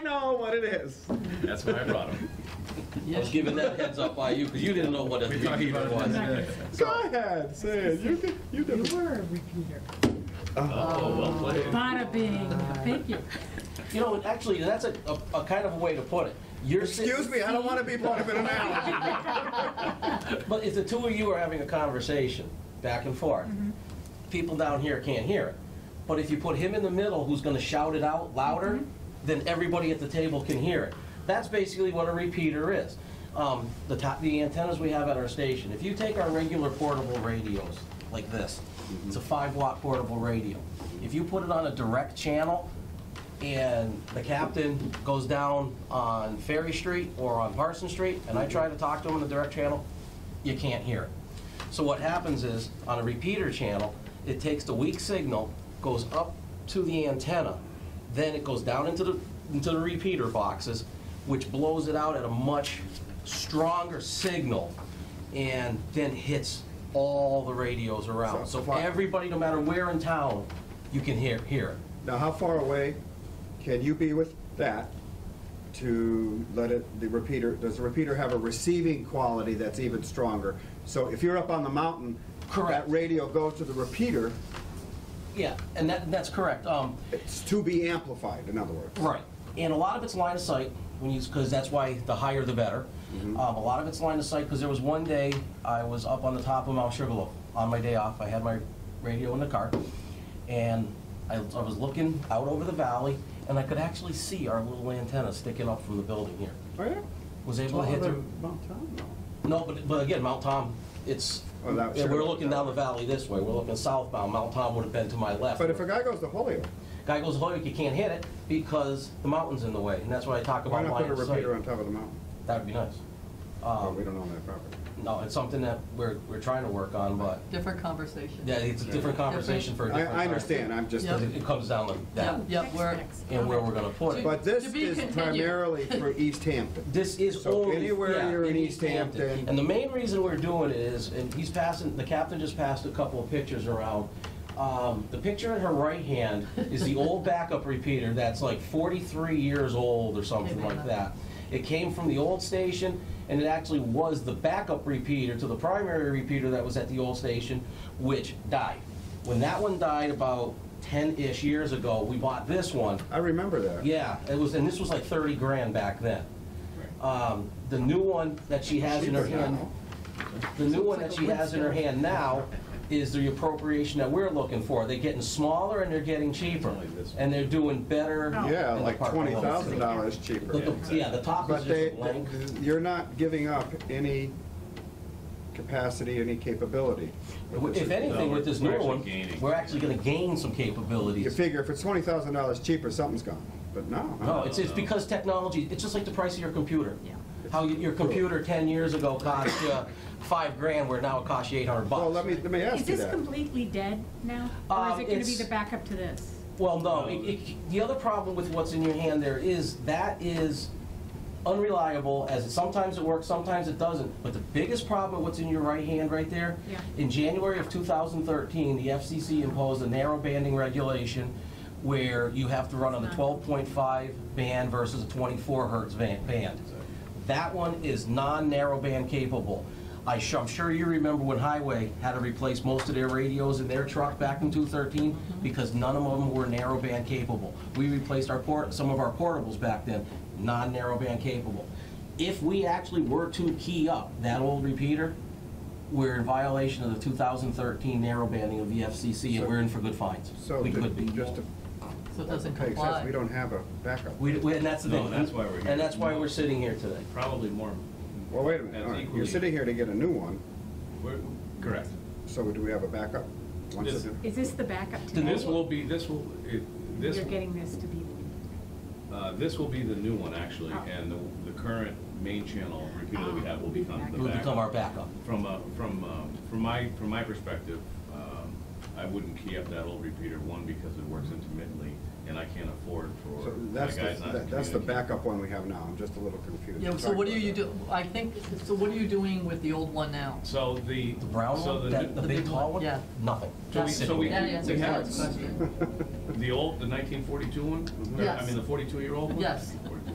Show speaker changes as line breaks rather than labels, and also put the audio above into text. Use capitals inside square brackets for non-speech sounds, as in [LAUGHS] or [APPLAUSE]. know what it is.
That's why I brought
[LAUGHS]
him.
I was giving that heads up by you because you didn't know what a
We talked
repeater
about it
was.
today.
Go ahead, say it. You did, you
You
did.
were a repeater.
Oh, well played.
Bada bing, thank you.
You know, actually, that's a, a, a kind of a way to put it. You're sit-
Excuse me, I don't want to be part of an analogy.
But if the two of you are having a conversation back and forth,
Mm-hmm.
people down here can't hear it. But if you put him in the middle, who's going to shout it out louder,
Mm-hmm.
then everybody at the table can hear it. That's basically what a repeater is. Um, the top, the antennas we have at our station. If you take our regular portable radios like this, it's a five watt portable radio. If you put it on a direct channel, and the captain goes down on Ferry Street or on Parson Street, and I try to talk to him in the direct channel, you can't hear it. So what happens is, on a repeater channel, it takes the weak signal, goes up to the antenna, then it goes down into the, into the repeater boxes, which blows it out at a much stronger signal, and then hits all the radios around.
So-
So everybody, no matter where in town, you can hear, hear it.
[LAUGHS] Now, how far away can you be with that to let it, the repeater, does the repeater have a receiving quality that's even stronger? So if you're up on the mountain, that
Correct.
radio goes to the repeater,
Yeah, and that, that's correct. Um,
it's to be amplified, in other words.
right. And a lot of it's line of sight, when you, because that's why the higher the better.
Mm-hmm.
Um, a lot of it's line of sight, because there was one day I was up on the top of Mount Sugarloaf on my day off. I had my radio in the car, and I, I was looking out over the valley, and I could actually see our little antenna sticking up from the building here.
Oh, yeah?
Was able to hit through. No, but, but again, Mount Tom, it's,
Oh, that-
yeah, we're
sure.
looking down the valley this way. We're looking southbound. Mount Tom would have been to my left.
But if a guy goes to Holyoke,
Guy goes Hoyok, you can't hit it because the mountain's in the way, and that's why I talk
why not
about
put
line
a
of sight.
repeater on top of the mountain?
That would be nice.
Well, we
Um,
don't own that property.
No, it's something that we're, we're trying to work on, but,
Different conversation.
yeah, it's a different conversation for a
I,
different
I
time.
understand, I'm just,
Yeah.
Because it- it comes down to
Yeah,
that,
yeah, we're,
and where we're gonna put it.
but this
To be
is
continued.
primarily for East Hampton.
This is
So
only,
anywhere
yeah,
you're in East Hampton-
And the main reason we're doing it is, and he's passing, the captain just passed a couple of pictures around. Um, The picture in her right hand is the
[LAUGHS]
old backup repeater that's like 43 years old or something like that. It came from the old station, and it actually was the backup repeater to the primary repeater that was at the old station, which died. When that one died about 10-ish years ago, we bought this one,
I remember that.
yeah, it was, and this was like thirty grand back then. Um, the new one that she has in her hand, the new one that she has in her hand now is the appropriation that we're looking for. They're getting smaller and they're getting cheaper, and they're doing better.
Yeah,
in the
like
park
twenty
below.
thousand dollars cheaper.
The- the- Yeah, the top is
But
just a
they,
blank.
you're not giving up any capacity, any capability. with this.
If anything, with this
No, we're
new one,
actually gaining.
we're actually gonna gain some
You
capabilities.
figure if it's twenty thousand dollars cheaper, something's gone, but no. huh?
No, it's, it's because technology, it's just like the price of your computer.
Yeah.
How y- your computer ten years ago cost you five grand, where now it costs you eight hundred bucks.
Well, let me, let me
Is
ask you
this
that.
completely dead now? Or is
Um,
it gonna be
it's-
the backup to this?
Well, no, it, it, the other problem with what's in your hand there is that is unreliable as it, sometimes it works, sometimes it doesn't. But the biggest problem with what's in your right hand right there,
Yeah.
in January of 2013, the FCC imposed a narrow banding regulation where you have to run on the 12.5 band versus a 24 hertz van, band. That one is non-narrowband capable. I sh- I'm sure you remember when Highway had to replace most of their radios in their truck back in 2013 because none of them were narrowband capable. We replaced our port, some of our portables back then, non-narrowband capable. If we actually were to key up that old repeater, we're in violation of the 2013 narrowbanding of the FCC and we're in for good fines.
So,
We
ju-
could be.
just to
so it doesn't
make sense, we
comply.
don't have a backup.
We- we- And that's the
No,
thing.
that's why we're here.
And that's why we're sitting here today.
Probably more,
Well, wait a minute,
That's
all right, you're
equally-
sitting here to get a new one,
we're- correct.
so do we have a backup? Once
This-
it-
Is this the backup to
This
this?
will be, this will, it, this,
You're getting this to be,
uh, this will be the new one, actually,
Oh.
and the, the current main channel repeater that we have will become the
It would
backup.
become our backup.
From, uh, from, um, from my, from my perspective, um, I wouldn't key up that old repeater, one, because it works intermittently, and I can't afford for,
So
my
that's,
guy's not
the- that- that's the
communicating.
backup one we have now, I'm just a little confused.
Yeah, so
Sorry
what are
about
you
that.
do, I think, so what are you doing with the old one now?
So the.
The brown
so
one,
the-
that, the
the
big
big
tall
one,
one?
yeah.
Nothing.
So we-
Just
so
sitting
we-
there.
That answers
have-
that question.
The old, the nineteen forty-two one?
Yes.
I mean, the forty-two-year-old one?
Yes.
Or-